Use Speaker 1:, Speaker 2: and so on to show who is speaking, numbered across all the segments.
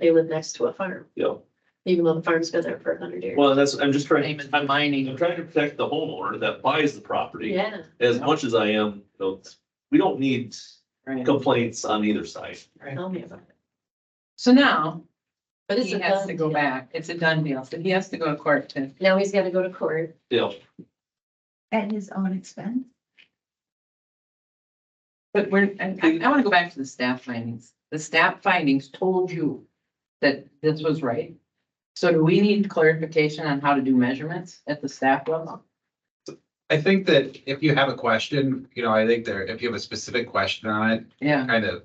Speaker 1: They live next to a farm,
Speaker 2: Yeah,
Speaker 1: even though the farm's been there for a hundred years.
Speaker 2: well, that's, I'm just trying,
Speaker 3: Name is
Speaker 2: I'm,
Speaker 3: mining.
Speaker 2: I'm trying to protect the homeowner that buys the property
Speaker 1: Yeah,
Speaker 2: as much as I am, you know, we don't need
Speaker 3: Right,
Speaker 2: complaints on either side.
Speaker 3: right.
Speaker 1: tell me about it.
Speaker 3: So now,
Speaker 1: But it's
Speaker 3: he
Speaker 1: a
Speaker 3: has to
Speaker 1: done
Speaker 3: go
Speaker 1: deal.
Speaker 3: back. It's a done deal. So he has to go to court to,
Speaker 1: Now he's gotta go to court.
Speaker 2: Yeah,
Speaker 4: At his own expense?
Speaker 3: but we're, I, I want to go back to the staff findings. The staff findings told you that this was right. So do we need clarification on how to do measurements at the staff level?
Speaker 5: I think that if you have a question, you know, I think there, if you have a specific question on it,
Speaker 3: Yeah,
Speaker 5: kind of.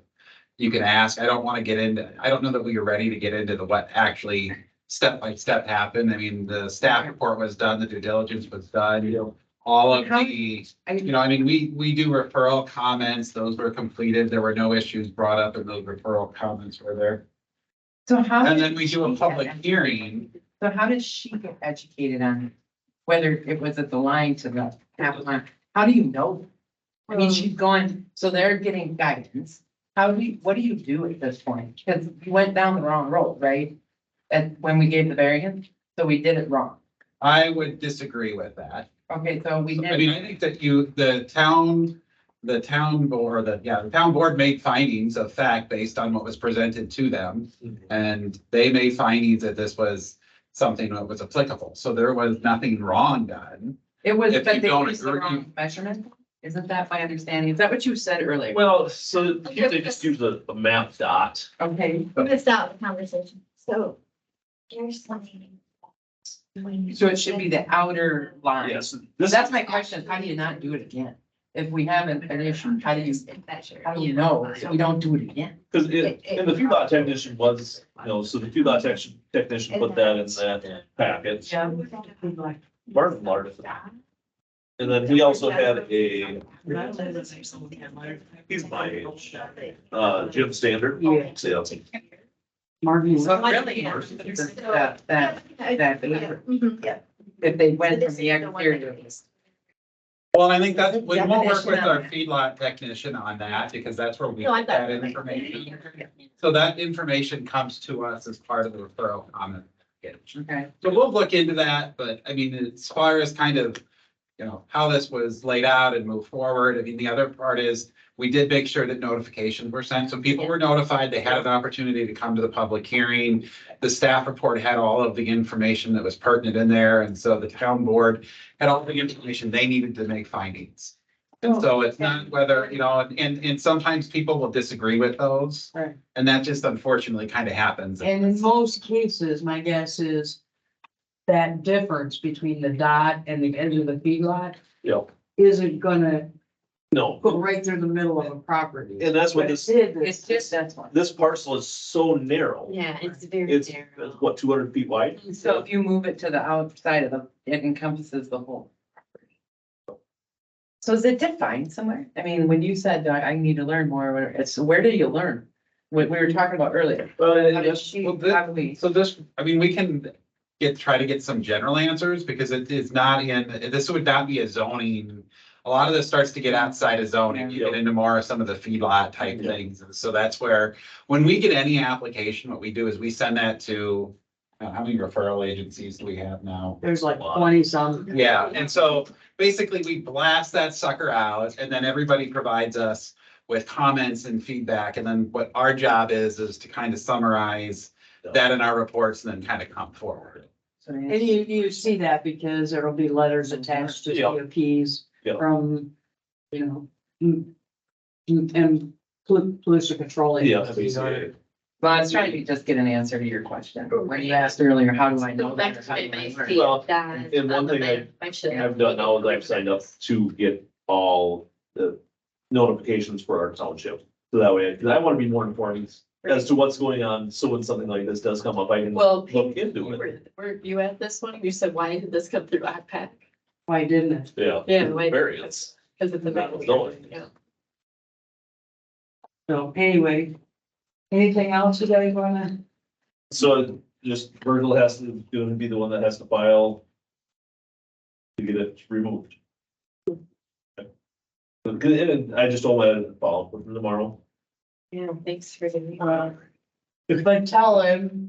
Speaker 5: You can ask, I don't want to get into, I don't know that we are ready to get into the what actually step by step happened. I mean, the staff report was done, the due diligence was done, you know. All of
Speaker 3: How-
Speaker 5: the,
Speaker 3: I-
Speaker 5: you know, I mean, we, we do referral comments, those were completed, there were no issues brought up and those referral comments were there.
Speaker 3: so how?
Speaker 5: And
Speaker 3: did
Speaker 5: then we do
Speaker 3: she
Speaker 5: a
Speaker 3: get
Speaker 5: public
Speaker 3: edu-
Speaker 5: hearing,
Speaker 3: So how does she get educated on whether it was at the line to the half line? How do you know? I
Speaker 1: Um,
Speaker 3: mean, she's going, so they're getting guidance. How do we, what do you do at this point? Because we went down the wrong road, right? And when we gave the variance, so we did it wrong.
Speaker 5: I would disagree with that.
Speaker 3: Okay, so we
Speaker 5: I mean, I
Speaker 3: did,
Speaker 5: think that you, the town, the town board, the, yeah, the town board made findings of fact based on what was presented to them. And they made findings that this was something that was applicable. So there was nothing wrong done.
Speaker 3: it was,
Speaker 5: if
Speaker 3: but
Speaker 5: you
Speaker 3: they
Speaker 5: don't
Speaker 3: used the
Speaker 5: agree-
Speaker 3: wrong measurement. Isn't that my understanding? Is that what you said earlier?
Speaker 2: well, so here they just use the, the map dot.
Speaker 3: Okay,
Speaker 4: I'm gonna stop the conversation. So here's something. when you-
Speaker 3: so it should be the outer line.
Speaker 2: Yes,
Speaker 3: So
Speaker 2: this,
Speaker 3: That's my question. How do you not do it again? If we have an an issue, how do you, how do you know if we don't do it again?
Speaker 2: because it, and the few dot technician was, you know, so the few dot technician, technician put that in that package.
Speaker 3: Yeah.
Speaker 2: Martin learned it. And then we also had a, He's my age. uh, Jim Standard.
Speaker 3: Yeah.
Speaker 2: Yeah.
Speaker 3: Martin. So
Speaker 1: Luther
Speaker 3: really,
Speaker 1: King.
Speaker 3: that, that, that,
Speaker 4: Yeah.
Speaker 3: if
Speaker 4: Mhm.
Speaker 3: they went
Speaker 1: This
Speaker 3: from
Speaker 1: is
Speaker 3: the
Speaker 1: the one that
Speaker 3: exterior.
Speaker 1: is-
Speaker 5: Well, I think that's, we won't work
Speaker 3: Definition
Speaker 5: with
Speaker 3: on
Speaker 5: our
Speaker 3: that.
Speaker 5: feedlot technician on that because that's where we
Speaker 1: No, I
Speaker 5: get
Speaker 1: thought.
Speaker 5: that information. So that information comes to us as part of the referral comment. package.
Speaker 3: Okay,
Speaker 5: So we'll look into that, but I mean, as far as kind of, you know, how this was laid out and move forward, I mean, the other part is. We did make sure that notifications were sent, so people were notified, they had an opportunity to come to the public hearing. The staff report had all of the information that was pertinent in there, and so the town board had all the information they needed to make findings. And
Speaker 6: Oh,
Speaker 5: so it's not whether, you know, and, and sometimes people will disagree with those.
Speaker 3: Right.
Speaker 5: And that just unfortunately kind of happens.
Speaker 6: And in most cases, my guess is that difference between the dot and the edge of the feedlot
Speaker 2: Yeah,
Speaker 6: isn't gonna
Speaker 2: no,
Speaker 6: go right through the middle of a property.
Speaker 2: and that's what
Speaker 6: But
Speaker 2: this,
Speaker 6: it is-
Speaker 3: it's just, that's one.
Speaker 2: this parcel is so narrow.
Speaker 1: Yeah, it's very
Speaker 2: It's, it's
Speaker 1: narrow.
Speaker 2: what, two hundred feet wide?
Speaker 3: So if you move it to the outside of the, it encompasses the whole. property. So is it defined somewhere? I mean, when you said I, I need to learn more, where- it's, where do you learn? What we were talking about earlier. How did she,
Speaker 5: Well, the-
Speaker 3: how do we?
Speaker 5: So this, I mean, we can get, try to get some general answers because it is not in, this would not be a zoning. A lot of this starts to get outside of zoning, you get into more of some of the feedlot type
Speaker 2: Yeah.
Speaker 5: things. And so that's where, when we get any application, what we do is we send that to, uh, how many referral agencies do we have now?
Speaker 6: There's like twenty some.
Speaker 5: Yeah, and so basically we blast that sucker out and then everybody provides us with comments and feedback. And then what our job is, is to kind of summarize that in our reports and then kind of come forward.
Speaker 6: And you, you see that because there'll be letters attached to
Speaker 2: Yeah.
Speaker 6: CUPs
Speaker 2: Yeah.
Speaker 6: from, you know, mm, mm, and pol- pollution control.
Speaker 2: Yeah.
Speaker 6: agencies are-
Speaker 3: Well, I was trying to just get an answer to your question. When you asked earlier, how do I know?
Speaker 1: Go back
Speaker 3: that or
Speaker 1: to
Speaker 3: how
Speaker 1: my
Speaker 3: do I
Speaker 1: base
Speaker 3: learn?
Speaker 1: fee
Speaker 2: Well,
Speaker 1: that
Speaker 2: and one
Speaker 1: on the
Speaker 2: thing I-
Speaker 1: map. I should have-
Speaker 2: I've done now is I've signed up to get all the notifications for our township. So that way, because I want to be more informed as to what's going on. So when something like this does come up, I can
Speaker 1: Well,
Speaker 2: look
Speaker 1: Pete,
Speaker 2: into
Speaker 1: you
Speaker 2: it.
Speaker 1: were, were you at this one? You said, why did this come through IPAC?
Speaker 6: Why didn't it?
Speaker 2: Yeah.
Speaker 1: Yeah, why-
Speaker 2: Variance.
Speaker 1: Because it's a.
Speaker 2: That
Speaker 1: map.
Speaker 2: was going.
Speaker 1: Yeah.
Speaker 6: So anyway, anything else you guys wanna?
Speaker 2: So just Virgil has to, gonna be the one that has to file to get it removed. Because, and I just don't want it to fall tomorrow.
Speaker 1: Yeah, thanks for giving me.
Speaker 6: Uh,
Speaker 3: But tell him